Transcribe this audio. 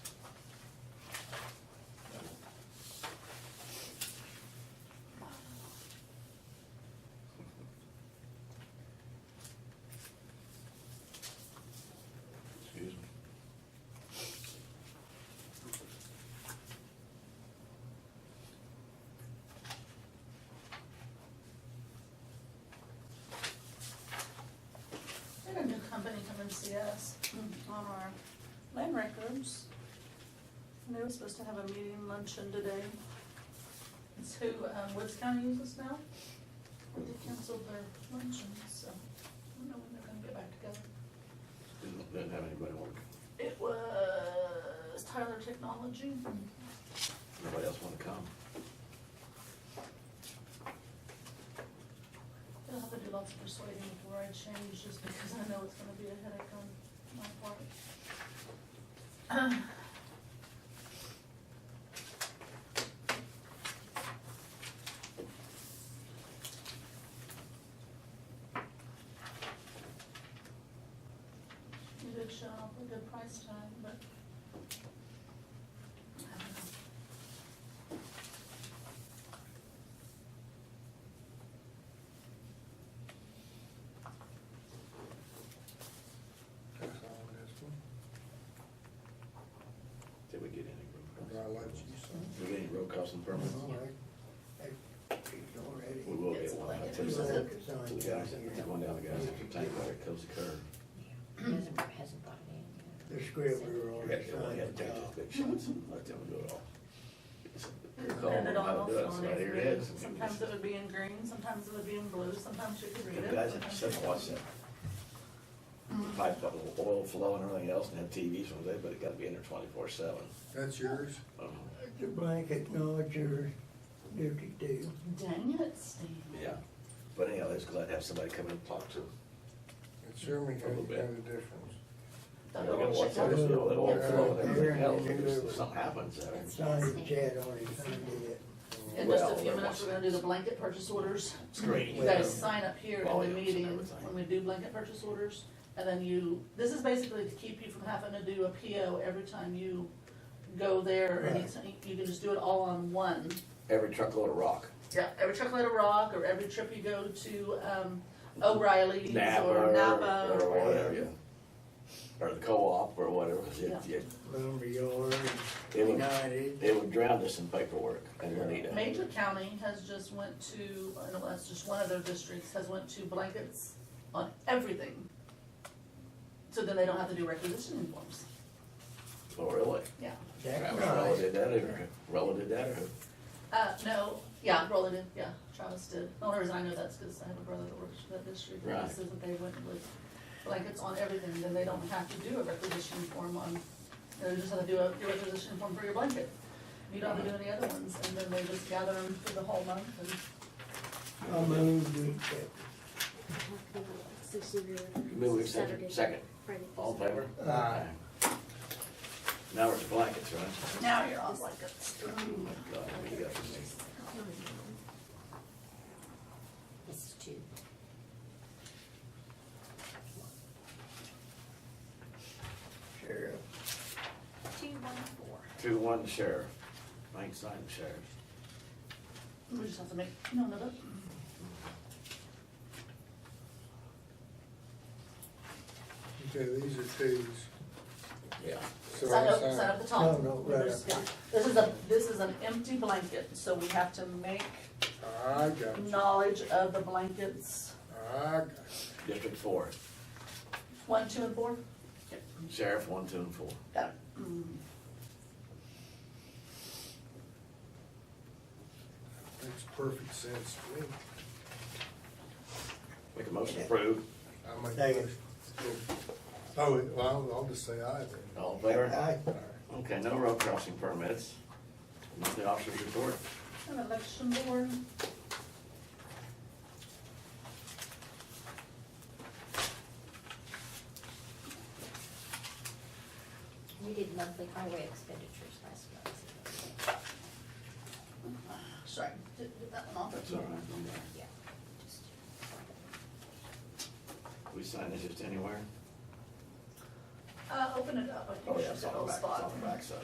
Rose. And they were supposed to have a meeting luncheon today. It's who, um, Woods County uses now. They canceled their luncheon, so I don't know when they're gonna get back together. Didn't, didn't have anybody want, It was Tyler Technology. nobody else wanna come. I'll have to do lots of persuading before I change, just because I know it's gonna be a headache on my part. You did show up a good price tag, but. I don't know. That's all it is for. Did we get any road But I costs? let you Did we get any road costs and permits? All right. Hey, it's already- We will It's get one, I like- tell you it's that. like- To the guys, the one down the guys, at the tank, where it comes to curb. Hasn't, hasn't brought it in. yet. The scribbler We on had the to, we side had of to the take those top. big shots and let them do it all. Call Depended them on how to do it, what's so on it. right here it is. Sometimes it would be in green, sometimes it would be in blue, sometimes you could read it. The guys had sometimes sit you and watch couldn't. that. Pipe got the oil flow and everything else, and had TVs all day, but it gotta be in there twenty-four seven. That's yours? Um, The blanket, no, it's yours. Duty deal. Dang it, Steve. Yeah, but anyhow, it's glad to have somebody come in and talk to them. It A certainly little doesn't bit. have a difference. You Thought it gotta was watch checked out. out, it's, you know, that oil flow and everything Yeah. else, if something happens, uh, It's Signed the fascinating. chat on it, signed it. In just a Well, few they're minutes, we're gonna do the blanket purchase orders. it's great. You guys Well, sign up here in the volumes and meeting everything. when we do blanket purchase orders. And then you, this is basically to keep you from having to do a PO every time you go there. Right. Anytime, you can just do it all on one. Every truckload of rock, Yeah, every chocolate of rock or every trip you go to um, O'Reilly's Napa or or Napa or or whatever, yeah. Or the co-op or whatever, Yeah. it, it, Lumberyard, It would- United. it would drown us in paperwork and Juanita. Major County has just went to, I know that's just one of their districts, has went to blankets on everything. So then they don't have to do requisitioning forms, Oh, really? yeah. That's Travis Rella nice. did that, or Rella did that, or Uh, no, yeah, Roland did, yeah, Travis did. The only reason I know that's because I have a brother that works for that district. and Right. He says that they went with blankets on everything, then they don't have to do a requisition form on, they just have to do a, your requisition form for your blanket. You don't have to do any other ones, and then they just gather them for the whole month and. I moved we accept. Move we accept it. Second. Friday. all in favor? Aye. Now we're to blankets, right? Now you're on blankets. Oh my God, what do you got for me? This is two. Sheriff. Two, one, four. Two, one, sheriff. Mike signed the sheriff. We just have to make, no, no, no. Okay, these are twos. Yeah. So Sign I up, sign up the top. No, no, right There's- up. yeah. This is a, this is an empty blanket, so we have to make I got you. knowledge of the blankets, I got you. District four, one, two, and four. sheriff, one, two, and four. Got it. Mm. Makes perfect sense to me. Make a motion to approve. I make a Second. motion. Oh, wait, well, I'll- I'll just say aye then. All in favor? Aye. Okay, no road crossing permits. Nothing officers report. An election board. We did monthly highway expenditures last month. Sorry, did, did that one off? That's all right, I'm there. Yeah. just- We sign this just anywhere? Uh, open it up. I think Oh, yeah, it's it's a on little the back, Oh, it's spot. on the backside.